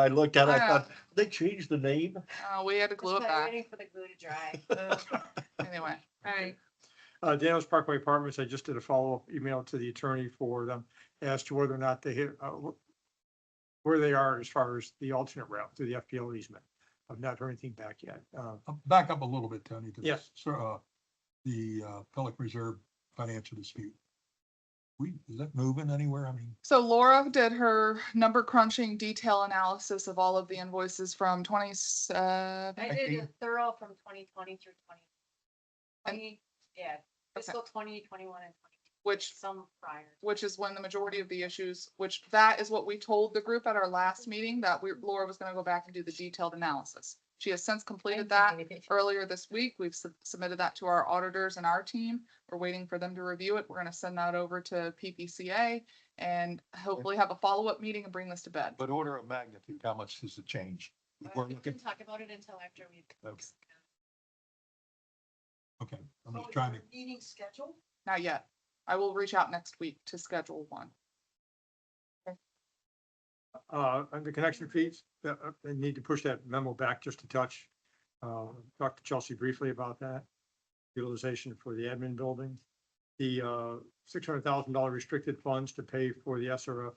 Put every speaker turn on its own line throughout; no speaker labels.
I looked at, it, I
Wow.
thought, they changed the name.
Oh, we had to glue it back.
Waiting for the glue to dry.
Anyway, all right.
Uh, Daniels Parkway Apartments, I just did a follow-up email to the attorney for them as to whether or not they hit, uh, wh- where they are as far as the alternate route through the FPL easement. I've not heard anything back yet. Uh,
Uh, Back up a little bit, Tony. to
Yeah.
this, So, uh, the, uh, Pelican Reserve financial dispute. We, is that moving anywhere? I mean,
So Laura did her number crunching detail analysis of all of the invoices from twenty, uh,
I did a thorough from twenty twenty through twenty. Twenty, yeah,
Okay.
fiscal twenty, twenty-one and twenty,
which,
some prior.
which is when the majority of the issues, which that is what we told the group at our last meeting, that we, Laura was gonna go back and do the detailed analysis. She has since completed that. earlier this week. We've sub- submitted that to our auditors and our team. We're waiting for them to review it. We're gonna send that over to PPCA and hopefully have a follow-up meeting and bring this to bed.
but order of magnitude, how much does it change? We're
But Uh, We
looking,
can talk about it until after we.
Okay. okay, I'm just trying to,
Meeting scheduled?
Not yet. I will reach out next week to schedule one.
uh, and the connection fees, uh, uh, they need to push that memo back just a touch. Uh, talked to Chelsea briefly about that. Utilization for the admin building, the, uh, six hundred thousand dollar restricted funds to pay for the SRF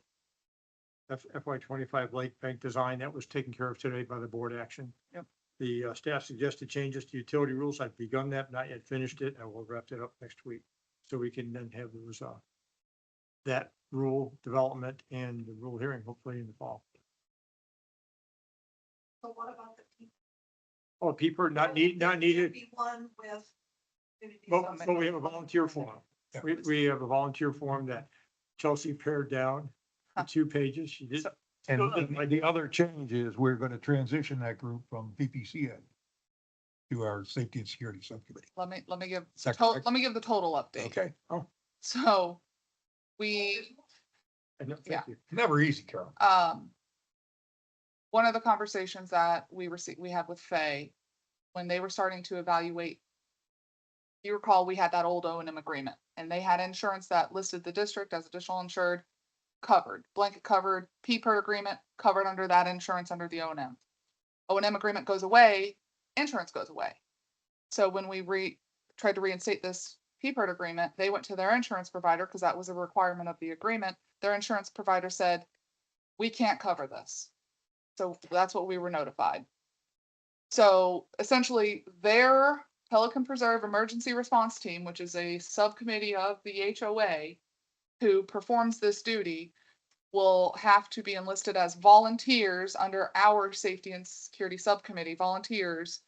F- FY twenty-five Lake Bank design, that was taken care of today by the board action.
Yep.
The uh, staff suggested changes to utility rules. I've begun that, not yet finished it, and we'll wrap that up next week. So we can then have those, uh, that rule development and the rule hearing hopefully in the fall.
So what about the? people?
Oh, people not need, not needed,
Be one with. community
but,
subs-
but we have a volunteer form. We, we have a volunteer form that Chelsea pared down to two pages. She did,
and the- the other change is we're gonna transition that group from PPCA to our Safety and Security Subcommittee.
Let me, let me give,
Is that
to-
correct?
let me give the total update.
Okay,
So we
and thank
Yeah.
you.
never easy, Carol.
um, one of the conversations that we received, we had with Fay, when they were starting to evaluate, you recall, we had that old O and M agreement, and they had insurance that listed the district as additional insured, covered, blanket covered, P per agreement, covered under that insurance under the O and M. O and M agreement goes away, insurance goes away. So when we re, tried to reinstate this P per agreement, they went to their insurance provider, because that was a requirement of the agreement. Their insurance provider said, we can't cover this. So that's what we were notified. So essentially, their Pelican Preserve Emergency Response Team, which is a subcommittee of the HOA who performs this duty, will have to be enlisted as volunteers under our Safety and Security Subcommittee, volunteers.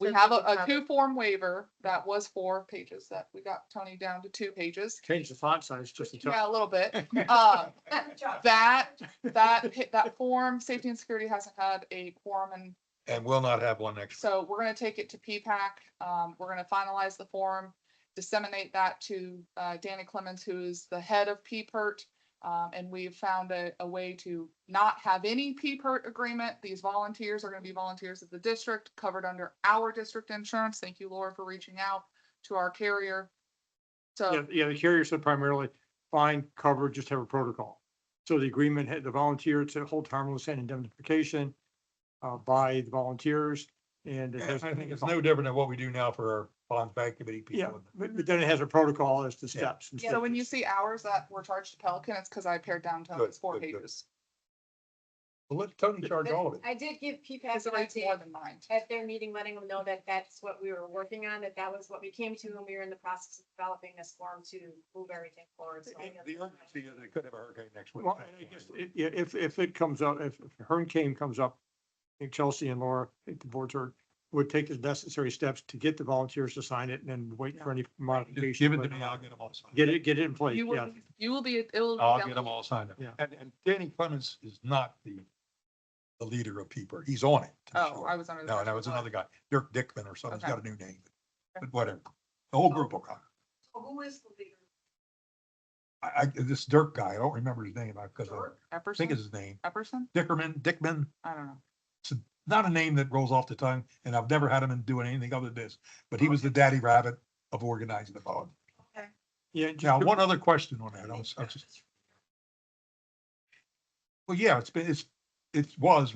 We
So
have a,
they can
a
have-
two-form waiver that was four pages, that we got Tony down to two pages.
Change the font size just a touch.
Yeah, a little bit. Um,
Good job.
that, that, pa- that form, safety and security hasn't had a quorum and
And we'll not have one next.
so we're gonna take it to PPAC. Um, we're gonna finalize the form, disseminate that to, uh, Danny Clemens, who is the head of PPERT. Um, and we've found a, a way to not have any PPERT agreement. These volunteers are gonna be volunteers of the district, covered under our district insurance. Thank you, Laura, for reaching out to our carrier.
Yeah,
So,
yeah, the carrier said primarily, fine, cover, just have a protocol. So the agreement had the volunteer to hold harmless and indemnification uh, by the volunteers and it
I
has.
think it's no different than what we do now for our bonds bank committee
Yeah,
people.
but, but then it has a protocol as to
Yeah.
steps. and
so when you
stages.
see hours that were charged to Pelican, it's because I pared down to
Good,
four
good, good.
pages.
Well, let Tony charge all of it.
I did give
Because
PPAC
the
an
rate's more
update
than mine.
at their meeting, letting them know that that's what we were working on, that that was what we came to, and we were in the process of developing this form to move everything forward. so-
The urgency is they could have a hurricane next week.
Well, and I guess, it- yeah, if, if it comes up, if if Hurricane comes up, I think Chelsea and Laura, I think the board's heard, would take the necessary steps to get the volunteers to sign it and then wait for any
Just
modification.
give it to me, I'll get them all signed.
Get it, get it in place,
You
yeah.
will, be- you will be, it will. be
Oh, I'll
down-
get them all signed up.
Yeah.
And, and Danny Clemens is not the, the leader of Peeper. He's on it. to be
Oh,
sure.
I was under. the
No,
impression
that was
it
another guy, Dirk Dickman or something. He's
Okay. Oh.
got a new name, but whatever. The whole group will come.
So Who is the leader?
I, I, this Dirk guy, I don't remember his name, because I think
Epperson,
it's his name,
Epperson?
Dickerman, Dickman,
I don't know.
not a name that rolls off the tongue, and I've never had him in doing anything other than this, but he was the daddy rabbit of organizing the bond.
Okay.
Yeah, just
Now,
to-
one other question on that. I was- I was just- Well, yeah, it's been, it's it was